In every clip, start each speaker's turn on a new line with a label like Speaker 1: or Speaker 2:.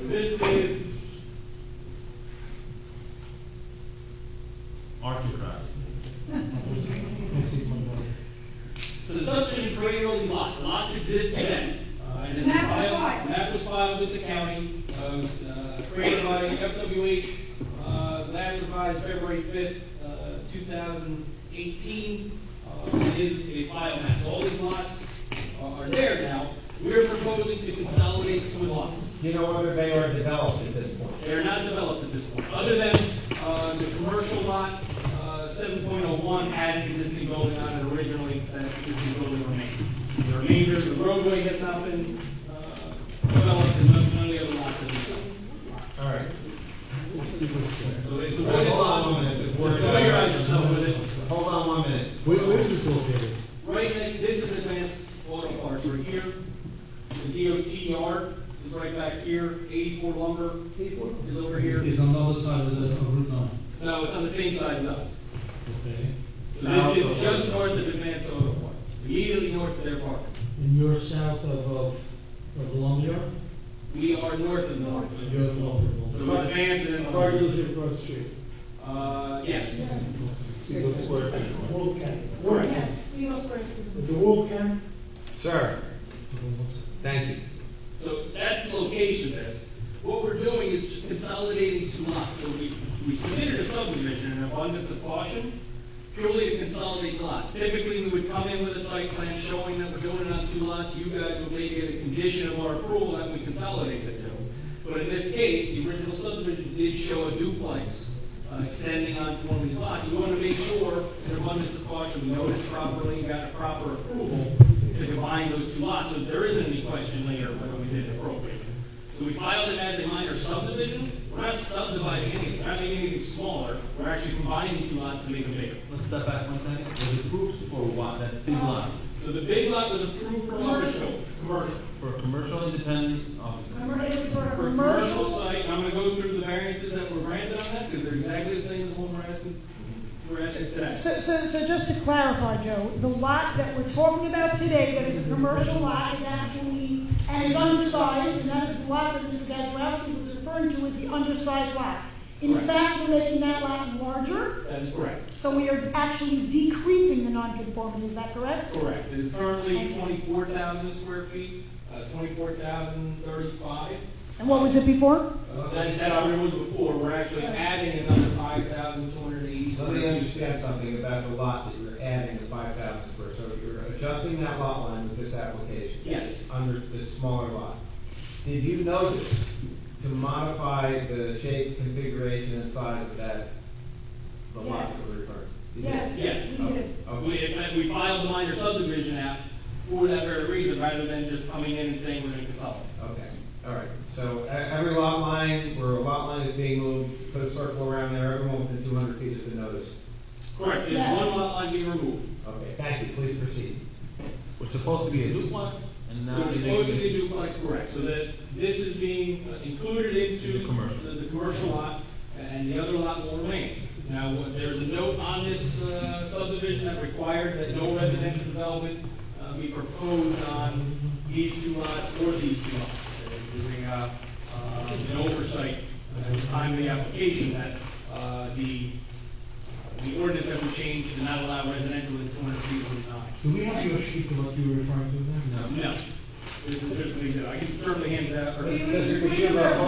Speaker 1: This is
Speaker 2: Arthritis.
Speaker 1: So the subdivision created all these lots, The lots exist today. Uh, and then
Speaker 3: Map was
Speaker 1: filed-
Speaker 3: filed.
Speaker 1: Map was filed with the county, uh, uh, created by FWH, uh, last revised February fifth, uh, two thousand eighteen. Uh, it is a file map, So all these lots are are there now. We're proposing to consolidate to a lot.
Speaker 4: Do you know whether they are developed at this point?
Speaker 1: They're not developed at this point, other than, uh, the commercial lot, uh, seven point oh one had an existing building on it originally, that existing building remained. The remainder, the roadway has not been, uh, developed, and none none of the other lots have been developed.
Speaker 4: All right.
Speaker 1: So it's a
Speaker 4: All right,
Speaker 1: wooded
Speaker 4: Hold on
Speaker 1: lot.
Speaker 4: one minute, just worry about
Speaker 1: Familiarize yourself with
Speaker 4: it.
Speaker 1: it.
Speaker 4: Hold on one minute.
Speaker 5: Where, where is this located?
Speaker 1: Right, now, this is advanced auto parts right here. The DOT yard is right back here, eighty-four lumber is over here.
Speaker 5: It's on the other side of the, of Route nine.
Speaker 1: No, it's on the same side as us.
Speaker 5: Okay.
Speaker 1: So this is just north of Advanced Auto Park, immediately north of their park.
Speaker 5: And you're south of, of, of Lumber?
Speaker 1: We are north of north.
Speaker 5: You're at
Speaker 1: So it's
Speaker 5: Lumber.
Speaker 1: Advanced and then
Speaker 6: Car
Speaker 1: Lumber.
Speaker 6: dealership across the street.
Speaker 1: Uh, yes.
Speaker 4: See what square feet you want.
Speaker 6: Wolfgang. Wolfgang.
Speaker 3: Yes, Seymour Square is-
Speaker 6: It's a Wolfgang.
Speaker 4: Sir, thank you.
Speaker 1: So that's the location of this. What we're doing is just consolidating two lots. So we, we submitted a subdivision in abundance of caution, purely to consolidate lots. Typically, we would come in with a site plan showing that we're doing it on two lots. You guys would make it a condition of our approval that we consolidate the two. But in this case, the original subdivision did show a duplex uh, extending onto one of these lots. We want to make sure, in abundance of caution, we noticed properly and got a proper approval to combine those two lots, so there isn't any question later whether we did it appropriately. So we filed it as a minor subdivision, we're not subdividing anything, we're not making anything smaller, we're actually combining two lots to make them bigger.
Speaker 2: Let's step back one second. Was approved for what, that big lot?
Speaker 1: So the big lot was approved for commercial, commercial.
Speaker 2: For commercial independent office.
Speaker 3: Remember, it was sort of
Speaker 1: For a commercial
Speaker 3: commercial.
Speaker 1: site, and I'm gonna go through the variances that were granted on that, because they're exactly the same as what we're asking, we're asking today.
Speaker 3: So, so, so just to clarify, Joe, the lot that we're talking about today, that is a commercial lot, is actually, and is undersized, and that is the lot that Mr. Gazarovski was referring to as the undersized lot. In
Speaker 1: Correct.
Speaker 3: fact, we're making that lot larger,
Speaker 1: That is correct.
Speaker 3: so we are actually decreasing the nonconformity, is that correct?
Speaker 1: Correct, it is currently twenty-four thousand square feet, uh, twenty-four thousand thirty-five.
Speaker 3: And what was it before?
Speaker 1: That, that already was before, we're actually adding another five thousand two hundred and eighty
Speaker 4: Let
Speaker 1: square
Speaker 4: me
Speaker 1: feet.
Speaker 4: understand something about the lot that you're adding the five thousand square. So you're adjusting that lot line with this application?
Speaker 1: Yes.
Speaker 4: Under this smaller lot. Did you notice to modify the shape, configuration, and size of that, the lot
Speaker 3: Yes.
Speaker 4: that we're referring? to? Did you?
Speaker 3: Yes.
Speaker 1: Yeah,
Speaker 3: We did.
Speaker 1: Uh, we, uh, we filed the minor subdivision app for that very reason, rather than just coming in and saying we're gonna consolidate.
Speaker 4: Okay, all right, so e- every lot line, where a lot line is being moved, put a circle around there, everyone within two hundred feet has been noticed.
Speaker 1: Correct, there's
Speaker 3: Yes.
Speaker 1: one lot line being removed.
Speaker 4: Okay, thank you, please proceed.
Speaker 2: Was supposed to be a duplex and now.
Speaker 1: It was
Speaker 2: they
Speaker 1: supposed to
Speaker 2: make
Speaker 1: be
Speaker 2: it-
Speaker 1: duplex, correct, so that this is being uh, included into.
Speaker 2: The commercial.
Speaker 1: The, the commercial lot, and the other lot will remain. Now, what- there's a note on this, uh, subdivision that required that no residential development, uh, be proposed on these two lots or these two lots. They're Doing, uh, uh, an oversight, uh, at the time of the application that, uh, the, the ordinance that was changed to not allow residential in two hundred feet of the line.
Speaker 5: Do we have your sheet of what you were referring to then?
Speaker 1: No, this is just an example, I can certainly hand it out, or,
Speaker 3: We-
Speaker 4: Mr.
Speaker 3: we- we
Speaker 4: Kishuba, hold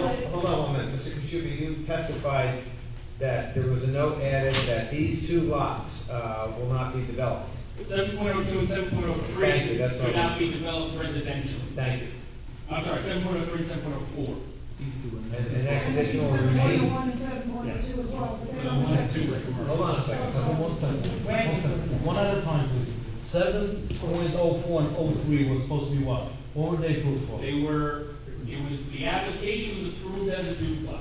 Speaker 3: deserve it.
Speaker 4: hold on one minute, Mr. Kishuba, you testified that there was a note added that these two lots uh, will not be developed.
Speaker 1: seven point oh two and seven point oh
Speaker 4: Thank
Speaker 1: three
Speaker 4: you, that's all.
Speaker 1: should not be developed residentially.
Speaker 4: Thank you.
Speaker 1: I'm sorry, seven point oh three, seven point oh four.
Speaker 2: These two and
Speaker 4: And
Speaker 2: that.
Speaker 4: and that condition will
Speaker 3: Seven point oh
Speaker 4: remain.
Speaker 3: one and seven point oh two as well. but they
Speaker 1: But I
Speaker 3: don't
Speaker 1: wanted
Speaker 3: affect
Speaker 1: to
Speaker 3: this.
Speaker 1: recommend-
Speaker 4: Hold on a second,
Speaker 5: So one second, one second, one at a time, please. Seven point oh four and oh three was supposed to be what? What were they approved for?
Speaker 1: They were, it was, the application was approved as a duplex.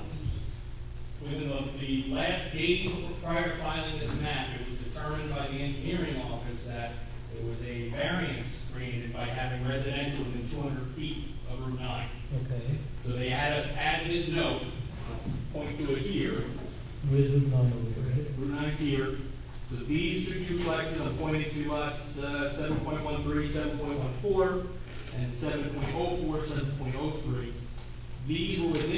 Speaker 1: Within the, the last day prior to filing this map, it was determined by the engineering office that it was a variance created by having residential within two hundred feet of Route nine.
Speaker 5: Okay,
Speaker 1: So they had us add this note, point to it here,
Speaker 5: where's Route nine over here?
Speaker 1: Route nine's here. So these two duplexes are pointed to us, uh, 7.13, 7.14, oh and 7.04, 7.03. These were within